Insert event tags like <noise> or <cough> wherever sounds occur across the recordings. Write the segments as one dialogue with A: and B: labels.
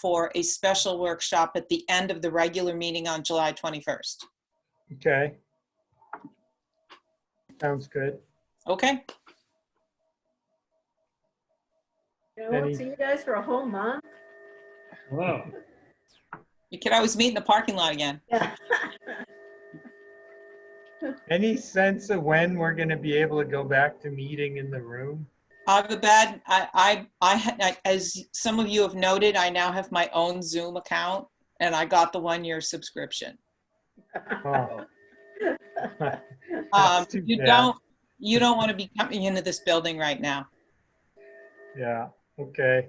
A: for a special workshop at the end of the regular meeting on July 21st.
B: Okay. Sounds good.
A: Okay,
C: Yeah, I won't
B: Any-
C: see you guys for a whole month.
D: Wow.
A: you can always meet in the parking lot again.
C: Yeah.
B: Any sense of when we're gonna be able to go back to meeting in the room?
A: I have a bad, I, I, I, ha- I- as some of you have noted, I now have my own Zoom account and I got the one-year subscription.
B: Oh,
A: Um,
B: <laughs> That's too
A: you
B: bad.
A: don't, you don't want to be coming into this building right
B: <laughs>
A: now.
B: yeah, okay.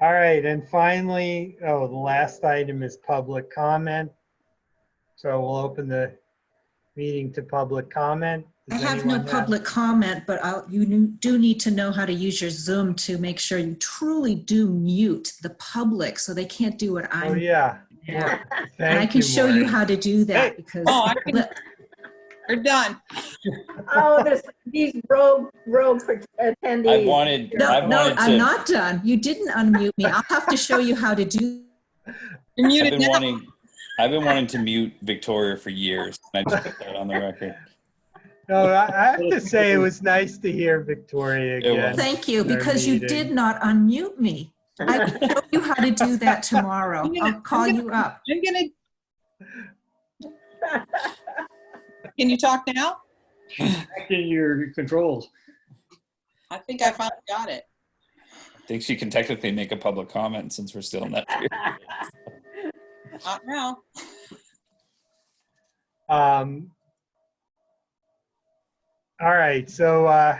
B: All right, and finally, oh, the last item is public comment. So we'll open the meeting to public comment.
E: I
B: Does
E: have no
B: anyone
E: public comment, but I'll, you n- do need to know how to use your Zoom to make sure you truly do mute the public so they can't do what
B: Oh,
E: I'm.
B: yeah.
E: Yeah. And
B: Thank
E: I can show
B: Maureen.
E: you how to do that because <laughs>
A: Oh, I can- We're done.
C: <laughs> Oh, this, these rogue, rogue attendees.
D: I wanted, I
E: No, no,
D: wanted
E: I'm
D: to,
E: not done. You didn't unmute me. I'll have to show you how to do.
B: <laughs>
A: You're
D: I've
A: muted
D: been
A: now.
D: wanting, I've been wanting to mute Victoria for years. and I just put that on
E: <laughs>
D: the record.
B: No, I I have to say, it was nice to hear Victoria
D: It
B: again.
D: was.
E: Thank you,
B: Their
E: because you
B: meeting.
E: did not unmute me. I will show you how to do that tomorrow.
A: <laughs> I'm gonna-
E: I'll call
A: I'm
E: you up.
A: I'm gonna. Can you talk now?
F: back in your controls.
A: I think I finally got it.
D: I think she can technically make a public comment since we're still in
E: <laughs>
D: that. period.
A: Not now.
B: Um, all right, so uh,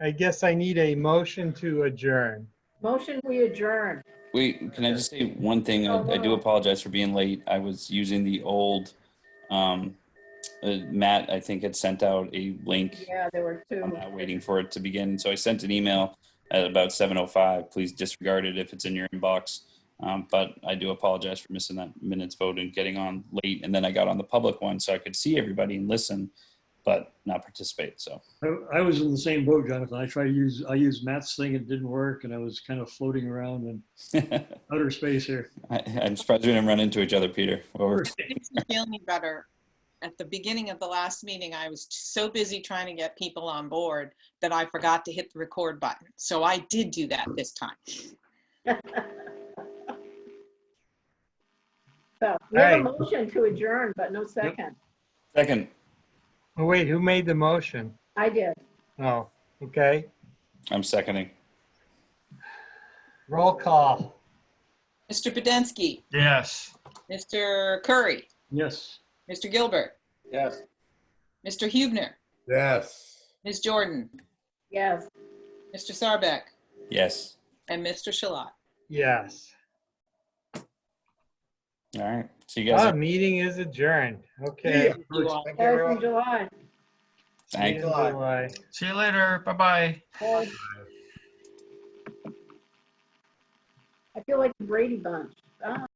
B: I guess I need a motion to adjourn.
C: Motion, we adjourn.
D: Wait, can I just say one thing?
C: Oh,
D: I I do
C: wow.
D: apologize for being late. I was using the old, um, uh, Matt, I think had sent out a link.
C: Yeah, there were two.
D: I'm not waiting for it to begin. So I sent an email at about 7:05. Please disregard it if it's in your inbox. Um, but I do apologize for missing that minutes vote and getting on late. And then I got on the public one so I could see everybody and listen, but not participate. So <laughs>
F: I, I was in the same boat, Jonathan. I tried to use, I used Matt's thing. It didn't work and I was kind of floating around in
D: I,
F: outer space here.
D: I'm surprised we didn't run into each other, Peter. Well, we're-
A: Makes me feel any better. At the beginning of the last meeting, I was so busy trying to get people on board that I forgot to hit the record button. So I did do that this time.
C: So we have a
B: Right.
C: motion to adjourn, but no second.
D: Second,
B: Oh, wait, who made the motion?
C: I did.
B: Oh, okay.
D: I'm seconding.
B: Roll call.
A: Mr. Podensky,
B: Yes.
A: Mr. Curry,
F: Yes.
A: Mr. Gilbert,
G: Yes.
A: Mr. Hubner,
G: Yes.
A: Ms. Jordan,
C: Yes.
A: Mr. Sarbeck,
D: Yes.
A: and Mr. Shalat.
B: Yes.
D: All right. See you guys.
B: Ah, meeting is adjourned. Okay.
A: You all.
G: Thank you,
C: Guys in
G: everyone.
C: July.
D: Thanks.
B: See you in July.
H: See you later. Bye bye.
C: Boy. I feel like the Brady Bunch. Ah.